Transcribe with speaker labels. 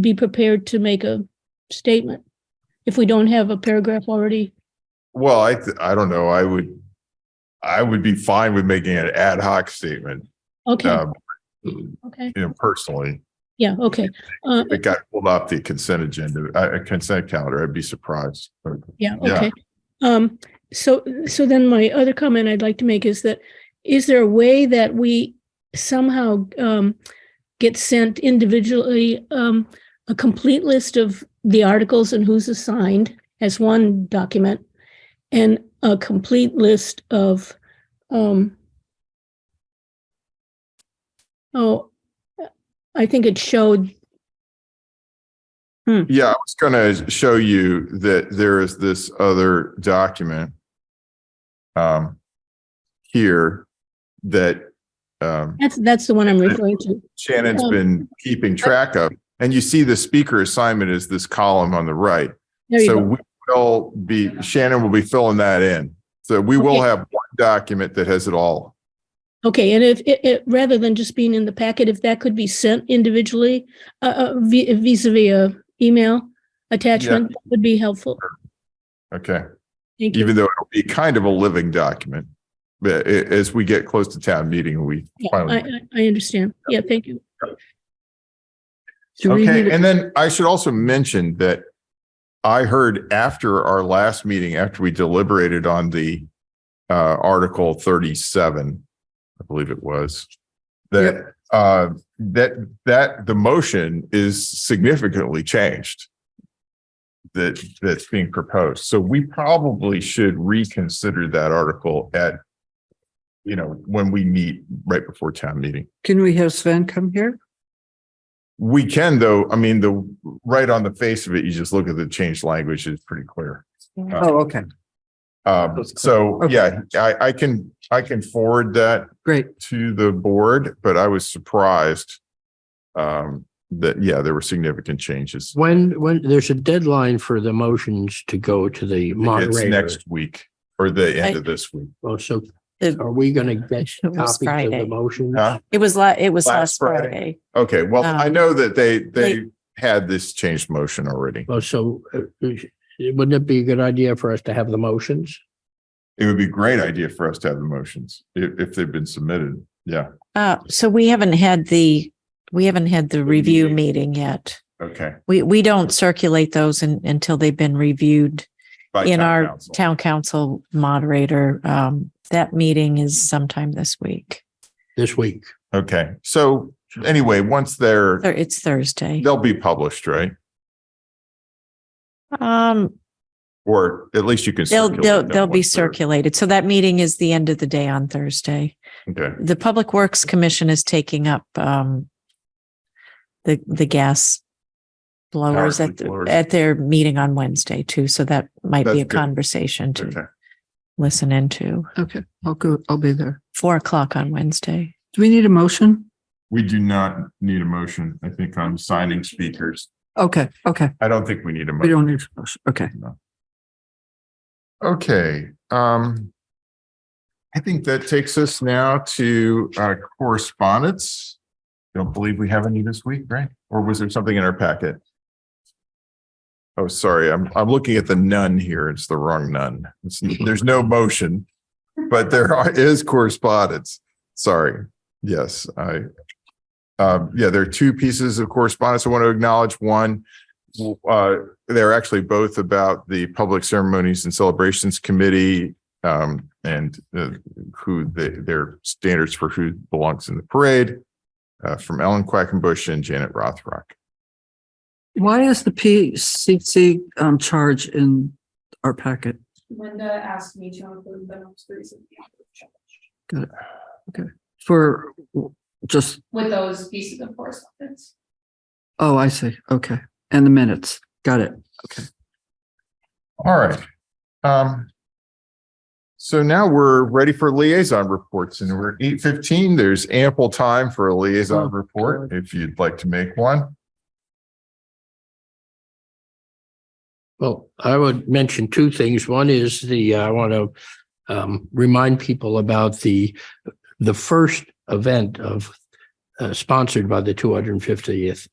Speaker 1: be prepared to make a statement if we don't have a paragraph already.
Speaker 2: Well, I, th- I don't know. I would, I would be fine with making an ad hoc statement,
Speaker 1: Okay,
Speaker 2: um,
Speaker 1: okay,
Speaker 2: you know, personally.
Speaker 1: yeah, okay. Uh,
Speaker 2: If it got pulled off the consent agenda, uh, consent calendar, I'd be surprised. But
Speaker 1: Yeah,
Speaker 2: Yeah.
Speaker 1: okay. Um, so, so then my other comment I'd like to make is that, is there a way that we somehow, um, get sent individually, um, a complete list of the articles and who's assigned as one document? And a complete list of, um, oh, I think it showed,
Speaker 2: Yeah, I was gonna show you that there is this other document um, here that um,
Speaker 1: that's, that's the one I'm referring to.
Speaker 2: Shannon's been keeping track of. And you see the speaker assignment is this column on the right.
Speaker 1: There you
Speaker 2: So
Speaker 1: go.
Speaker 2: we will be, Shannon will be filling that in. So we will
Speaker 1: Okay.
Speaker 2: have one document that has it all.
Speaker 1: Okay, and if, it, it, rather than just being in the packet, if that could be sent individually, uh, uh, vi- vis a vis a email attachment, that would be helpful.
Speaker 2: Okay,
Speaker 1: Thank you.
Speaker 2: even though it'll be kind of a living document. But a- as we get close to town meeting, we
Speaker 1: Yeah, I,
Speaker 2: finally.
Speaker 1: I, I understand. Yeah, thank you.
Speaker 3: Do we need,
Speaker 2: Okay,
Speaker 3: a-
Speaker 2: and then I should also mention that I heard after our last meeting, after we deliberated on the uh, Article thirty-seven, I believe it was, that uh, that that the motion is significantly changed that that's being proposed. So we probably should reconsider that article at you know, when we meet right before town meeting.
Speaker 3: can we have Sven come here?
Speaker 2: We can though, I mean, the, right on the face of it, you just look at the changed language, it's pretty clear.
Speaker 3: Oh, okay,
Speaker 2: Um, so,
Speaker 3: Okay.
Speaker 2: yeah, I, I can, I can forward that
Speaker 3: great.
Speaker 2: to the board, but I was surprised. Um, that, yeah, there were significant changes.
Speaker 4: When, when, there's a deadline for the motions to go to the
Speaker 2: It's
Speaker 4: moderator.
Speaker 2: next week or the end of this week.
Speaker 4: Well, so
Speaker 5: It-
Speaker 4: are we gonna get
Speaker 5: It was
Speaker 4: copies of the
Speaker 5: Friday.
Speaker 4: motions?
Speaker 2: Huh?
Speaker 5: It was la, it was
Speaker 2: Last
Speaker 5: last
Speaker 2: Friday.
Speaker 5: Friday.
Speaker 2: Okay, well, I
Speaker 5: Um,
Speaker 2: know that they, they had this changed motion already.
Speaker 4: Well, so uh, wouldn't it be a good idea for us to have the motions?
Speaker 2: It would be a great idea for us to have the motions if, if they've been submitted. Yeah,
Speaker 5: Uh, so we haven't had the, we haven't had the review
Speaker 2: meeting.
Speaker 5: meeting yet.
Speaker 2: okay.
Speaker 5: We, we don't circulate those in- until they've been reviewed
Speaker 2: By
Speaker 5: in
Speaker 2: town
Speaker 5: our
Speaker 2: council.
Speaker 5: town council moderator. Um, that meeting is sometime this week.
Speaker 4: This week,
Speaker 2: Okay, so anyway, once they're,
Speaker 5: Thur- It's Thursday.
Speaker 2: they'll be published, right?
Speaker 5: Um,
Speaker 2: Or at least you can.
Speaker 5: they'll,
Speaker 2: circulate
Speaker 5: they'll,
Speaker 2: them
Speaker 5: they'll be
Speaker 2: once they're-
Speaker 5: circulated. So that meeting is the end of the day on Thursday.
Speaker 2: Okay,
Speaker 5: The Public Works Commission is taking up, um, the, the gas blowers
Speaker 2: Power
Speaker 5: at,
Speaker 2: blowers.
Speaker 5: the- at their meeting on Wednesday too. So that might
Speaker 2: That's
Speaker 5: be a
Speaker 2: good.
Speaker 5: conversation
Speaker 2: okay.
Speaker 5: to listen into.
Speaker 3: Okay, I'll go, I'll be there.
Speaker 5: Four o'clock on Wednesday.
Speaker 3: Do we need a motion?
Speaker 2: We do not need a motion, I think, on signing speakers.
Speaker 3: Okay, okay,
Speaker 2: I don't think we need a.
Speaker 3: we
Speaker 2: motion.
Speaker 3: don't need, a motion. okay.
Speaker 2: Okay, um. I think that takes us now to uh, correspondence. Don't believe we have any this week, right? Or was there something in our packet? Oh, sorry, I'm, I'm looking at the none here. It's the wrong none. It's, there's no motion. But there are- is correspondence. Sorry. Yes, I. Um, yeah, there are two pieces of correspondence I want to acknowledge. One, uh, they're actually both about the Public Ceremonies and Celebrations Committee um, and uh, who the, their standards for who belongs in the parade uh, from Ellen Quackenbush and Janet Rothrock.
Speaker 3: Why is the PCC um charge in our packet?
Speaker 6: Linda asked me to include the most recent.
Speaker 3: For just,
Speaker 6: With those pieces of correspondence.
Speaker 3: oh, I see, okay, and the minutes, got it.
Speaker 2: All right. Um, so now we're ready for liaison reports and we're eight fifteen. There's ample time for a liaison report if you'd like to make one.
Speaker 4: Well, I would mention two things. One is the, uh, I want to um, remind people about the, the first event of uh, sponsored by the two hundred and fiftieth